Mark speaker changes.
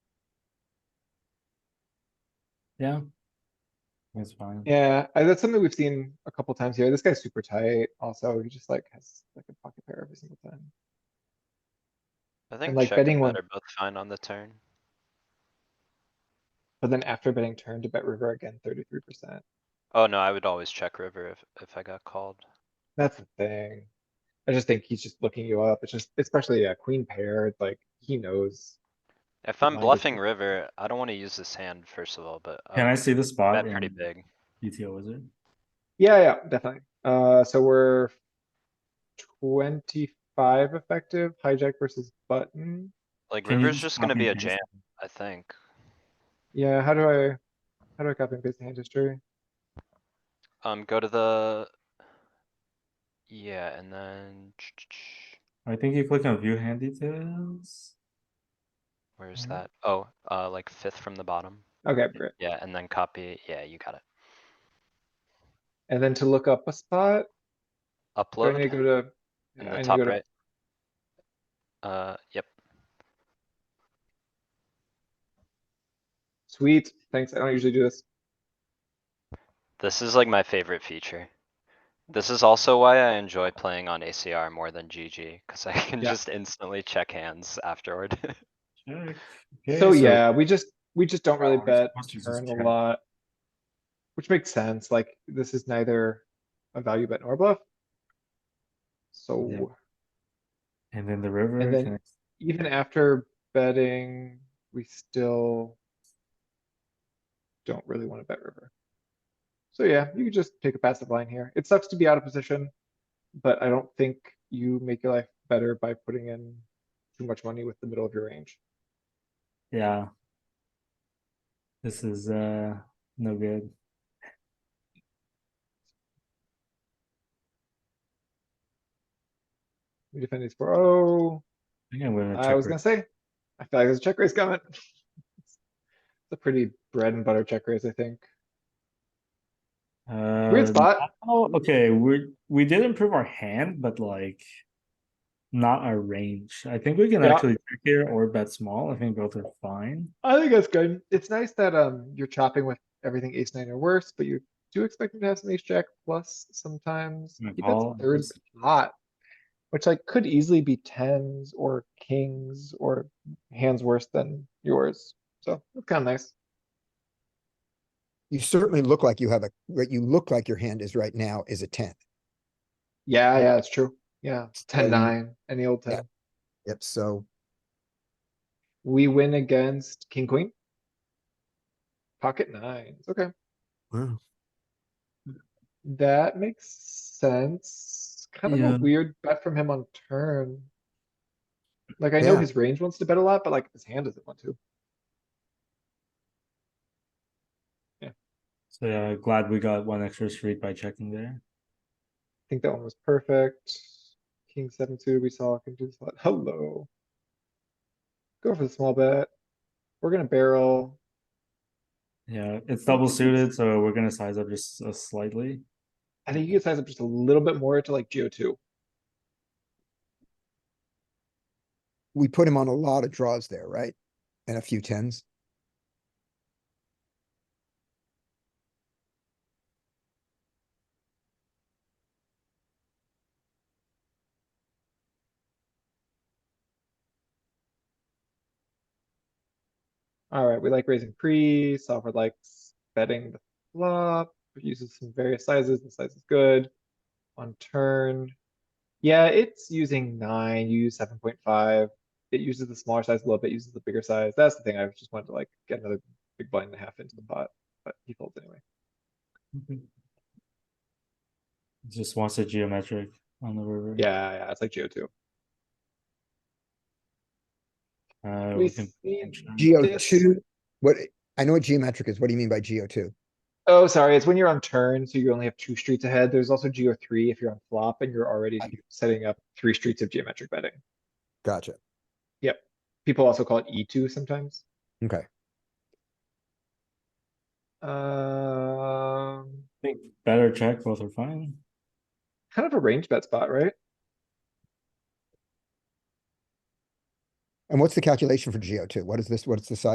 Speaker 1: yeah. That's fine.
Speaker 2: Yeah, I- that's something we've seen a couple times here. This guy's super tight also. He just like has like a pocket pair every single time.
Speaker 3: I think
Speaker 2: like,
Speaker 3: check and
Speaker 2: betting one-
Speaker 3: bet are both fine on the turn.
Speaker 2: But then after betting turn to bet river again, thirty-three percent.
Speaker 3: Oh no, I would always check river if, if I got called.
Speaker 2: That's the thing. I just think he's just looking you up. It's just, especially a queen pair, like he knows.
Speaker 3: If I'm
Speaker 2: Mine would
Speaker 3: bluffing
Speaker 2: be-
Speaker 3: river, I don't wanna use this hand first of all, but. I
Speaker 1: Can I
Speaker 3: would
Speaker 1: see the spot
Speaker 3: Bet pretty
Speaker 1: in
Speaker 3: big.
Speaker 1: GTO wizard?
Speaker 2: Yeah, yeah, definitely. Uh, so we're twenty-five effective hijack versus button.
Speaker 3: Like
Speaker 1: Can you
Speaker 3: river's just gonna
Speaker 1: copy
Speaker 3: be a
Speaker 1: and paste
Speaker 3: jam,
Speaker 1: it?
Speaker 3: I think.
Speaker 2: Yeah, how do I, how do I copy and paste the hand history?
Speaker 3: Um, go to the. Yeah, and then.
Speaker 1: I think you click on view hand details.
Speaker 3: Where's
Speaker 2: Mhm.
Speaker 1: Mm-hmm.
Speaker 3: that? Oh, uh, like fifth from the bottom.
Speaker 2: Okay, great.
Speaker 3: Yeah, and then copy. Yeah, you got it.
Speaker 2: And then to look up a spot, do I need to go
Speaker 3: Upload
Speaker 2: to?
Speaker 3: in
Speaker 2: I need
Speaker 3: the
Speaker 2: to
Speaker 3: top
Speaker 2: go to-
Speaker 3: right. Uh, yep.
Speaker 2: Sweet, thanks. I don't usually do this.
Speaker 3: This is like my favorite feature. This is also why I enjoy playing on ACR more than GG, cuz I can
Speaker 2: Yeah.
Speaker 3: just instantly check hands afterward.
Speaker 1: Check.
Speaker 2: So
Speaker 1: Okay,
Speaker 2: yeah, we just, we just don't really
Speaker 1: Oh, it's
Speaker 2: bet
Speaker 1: supposed to just
Speaker 2: turn a
Speaker 1: check.
Speaker 2: lot. Which makes sense, like this is neither a value bet nor a bluff. So
Speaker 1: And then the river.
Speaker 2: And then-
Speaker 1: connects-
Speaker 2: even after betting, we still don't really wanna bet river. So yeah, you could just take a passive line here. It sucks to be out of position, but I don't think you make your life better by putting in too much money with the middle of your range.
Speaker 1: Yeah. This is uh no good.
Speaker 2: We defend these for, oh.
Speaker 1: I think I'm gonna
Speaker 2: I was
Speaker 1: check.
Speaker 2: gonna
Speaker 1: it.
Speaker 2: say, I feel like there's a check raise coming. It's a pretty bread and butter check raise, I think.
Speaker 1: Uh,
Speaker 2: Weird spot.
Speaker 1: Oh, uh, okay, we, we did improve our hand, but like. Not our range. I think we can
Speaker 2: Yeah.
Speaker 1: actually check here or bet small. I think both are fine.
Speaker 2: I think that's good. It's nice that, um, you're chopping with everything ace nine or worse, but you do expect him to have some ace jack plus sometimes.
Speaker 1: Yeah,
Speaker 2: He
Speaker 1: call,
Speaker 2: bets third
Speaker 1: Hmm, ace-
Speaker 2: pot, which like could easily be tens or kings or hands worse than yours. So it's kind of nice.
Speaker 4: You certainly look like you have a, what you look like your hand is right now is a ten.
Speaker 2: Yeah, yeah, it's true. Yeah, it's ten,
Speaker 4: Um,
Speaker 2: nine, any old
Speaker 4: yeah.
Speaker 2: ten.
Speaker 4: Yep, so
Speaker 2: We win against king, queen. Pocket nines, okay.
Speaker 4: wow,
Speaker 2: That makes sense. Kind of
Speaker 1: Yeah.
Speaker 2: a weird bet from him on turn. Like I know
Speaker 4: Yeah.
Speaker 2: his range wants to bet a lot, but like his hand doesn't want to.
Speaker 1: So yeah, glad we got one extra street by checking there.
Speaker 2: I think that one was perfect. King seven suited, we saw can do this a lot. Hello. Go for the small bet. We're gonna barrel.
Speaker 1: Yeah, it's double suited, so we're gonna size up just uh, slightly.
Speaker 2: I think you can size up just a little bit more to like GO two.
Speaker 4: we put him on a lot of draws there, right? And a few tens.
Speaker 2: Alright, we like raising pre, solver likes betting the flop, it uses some various sizes, the size is good. On turn, yeah, it's using nine, you use seven point five. It uses the smaller size a little bit, uses the bigger size. That's the thing, I just wanted to like get another big blind and a half into the pot, but he folds anyway.
Speaker 1: Just wants a geometric on the river.
Speaker 2: Yeah, yeah, it's like GO two.
Speaker 1: Uh,
Speaker 2: We
Speaker 1: we can.
Speaker 2: see,
Speaker 4: GO
Speaker 2: This-
Speaker 4: two, what, I know what geometric is, what do you mean by GO two?
Speaker 2: oh, sorry, it's when you're on turn, so you only have two streets ahead. There's also GO three if you're on flop and you're already
Speaker 4: I-
Speaker 2: setting up three streets of geometric betting.
Speaker 4: Gotcha,
Speaker 2: People also call it E two sometimes.
Speaker 4: okay.
Speaker 2: Um,
Speaker 1: I think better check, both are fine.
Speaker 2: kind of a range bet spot, right?
Speaker 4: And what's the calculation for GO two? What is this, what's the size